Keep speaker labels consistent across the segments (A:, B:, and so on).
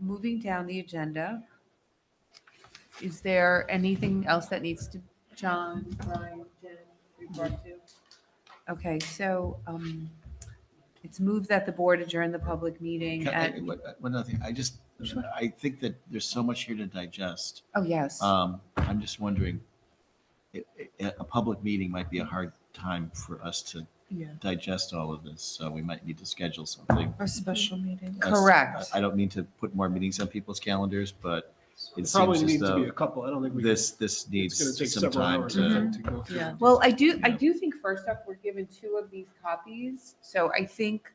A: moving down the agenda, is there anything else that needs to, John, Brian, Jen, report to? Okay, so um, it's moved that the board adjourn the public meeting
B: Can I-
A: at,
B: One one other thing, I just, I think that there's so much here to digest.
A: oh, yes.
B: Um, I'm just wondering, i- i- a public meeting might be a hard time for us to
C: Yeah.
B: digest all of this, so we might need to schedule something.
C: Our special meeting.
B: That's-
A: Correct.
B: I I don't mean to put more meetings on people's calendars, but it
D: Probably
B: seems as
D: needs to be
B: though
D: a couple. I don't think we. can-
B: this, this
D: It's going to take
B: needs some
D: several
B: time
D: hours Mm-hmm. I
B: to.
A: Mhm.
D: think, to go through.
C: Yeah.
A: Well, I do, I
B: Yeah.
A: do think first off, we're given two of these copies, so I think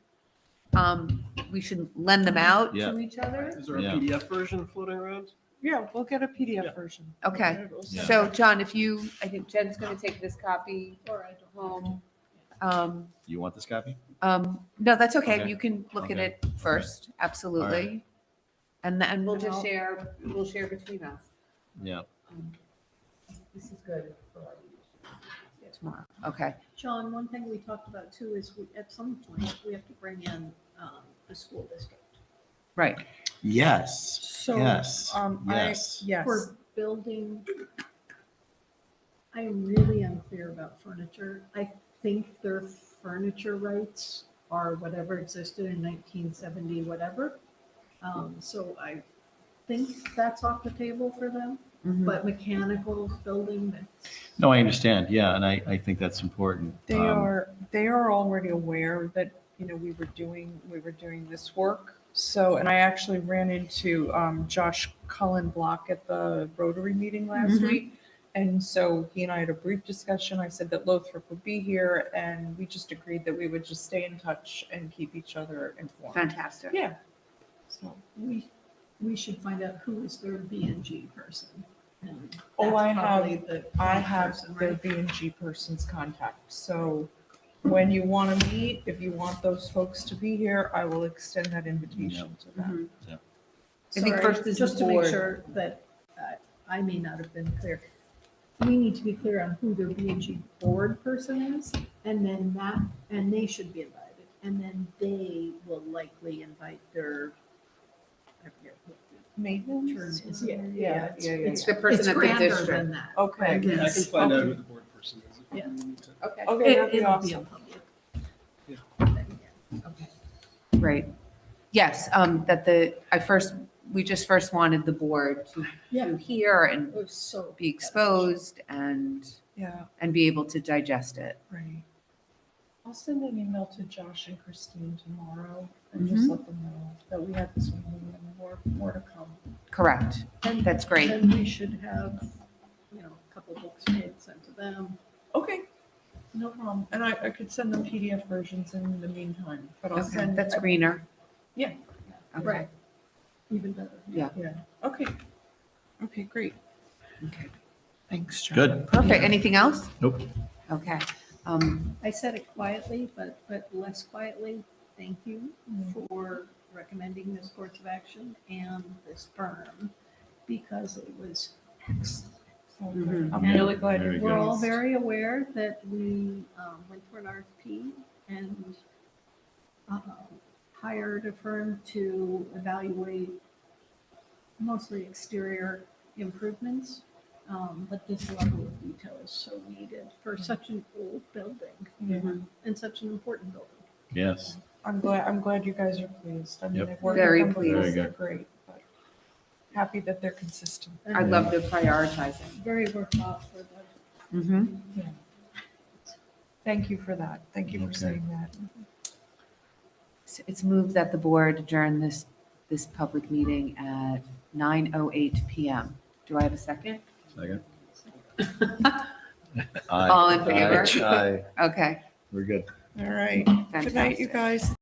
A: um, we should lend them out
B: Yeah.
A: to each other.
D: Is there a
B: Yeah.
D: PDF version floating around?
C: Yeah, we'll get a
D: Yeah.
C: PDF version.
A: Okay,
D: we'll see.
B: Yeah.
A: so John, if you, I think Jen's going to take this copy
C: Or I don't.
A: home. Um,
B: You want this copy?
A: Um, no, that's okay.
B: Okay.
A: You can look at
B: Okay.
A: it first, absolutely. And then we'll just
C: I'll-
A: share, we'll share between us.
B: Yeah.
A: This is good. Tomorrow, okay.
E: John, one thing we talked about too is we, at some point, we have to bring in um, the school district
A: Right,
B: Yes,
C: So,
B: yes,
C: um, I,
B: yes.
C: yes,
E: for building. I am really unclear about furniture. I think their furniture rights are whatever existed in 1970, whatever. Um, So I think that's off the table for them,
A: Mhm.
E: but mechanical building, that's-
B: No, I understand, yeah, and I, I think that's important.
C: they
B: Um,
C: are, they are already aware that, you know, we were doing, we were doing this work. So, and I actually ran into, um, Josh Cullen Block at the Rotary meeting last
A: Mhm.
C: week. And so he and I had a brief discussion. I said that Lothrop would be here and we just agreed that we would just stay in touch and keep each other informed.
A: fantastic.
C: Yeah. So.
E: we, we should find out who is their B and G person. and
C: Oh,
E: that's
C: I have-
E: probably the
C: I
E: right
C: have
E: person,
C: their
E: right?
C: B and G person's contact, so when you want to meet, if you want those folks to be here, I will extend that invitation to them.
A: Mhm. I think
E: Sorry,
A: first is the
E: just to make
A: board.
E: sure that uh, I may not have been clear. We need to be clear on who their B and G board person is, and then that, and they should be invited. And then they will likely invite their, I forget what the term
C: Maintenance?
E: is.
C: Yeah, yeah, yeah, yeah.
A: It's the person
E: it's
A: at the
E: grander
A: district.
E: than that.
D: I
C: Okay,
D: can I can
E: Yes.
D: find out
C: Okay.
D: who the board person is. if we
E: Yeah.
D: need to.
A: Okay,
C: okay, that'd
E: It,
C: be
E: it'll be a
C: awesome.
E: public.
D: Yeah.
E: thing, yeah.
A: great. Yes, um, that the, I first, we just first wanted the board to
E: Yeah,
A: to hear
E: it
A: and
E: was so.
A: be exposed and,
C: Yeah,
A: and be able to digest it.
C: right. I'll send an email to Josh and Christine tomorrow and just
A: Mhm.
C: let them know that we had this meeting and more, more to come.
A: Correct,
E: And
A: that's great.
E: then we should have, you know, a couple books made, sent to them.
C: Okay, no problem, and I, I could send them PDF versions in the meantime, but I'll
A: Okay,
C: send.
A: that's greener.
C: Yeah.
A: Okay.
E: Right. Even better.
C: Okay, okay, great.
A: Okay.
C: Thanks, John.
B: Good,
A: Perfect, anything else?
B: Nope.
A: Okay, um,
E: I said it quietly, but, but less quietly. Thank you for recommending this course of action and this firm because it was excellent.
A: Mhm.
C: I'm really glad
B: Very
C: you're.
E: We're all
C: doing this.
E: very aware that we um, went through an RFP and um, hired a firm to evaluate mostly exterior improvements, um, but this level of detail is so needed
A: Mm-hmm.
E: for such an old building
C: Yeah.
E: and such an important building.
B: yes.
C: I'm glad, I'm glad you guys are pleased. I mean,
B: Yep.
C: I've worked
A: Very
C: with them before,
B: pleased.
C: they're great. but Happy that they're consistent.
A: I
E: And
A: love the prioritizing.
E: Very worthwhile for the
A: Mm-hmm.
C: Thank you for that. Thank you for
B: Okay.
C: saying that.
A: It's moved that the board adjourn this, this public meeting at 9:08 PM. Do I have a second?
B: Second.
A: All in favor?
B: Aye,
A: Okay,
B: we're good.
C: All right. Good night, you
A: fantastic.
C: guys.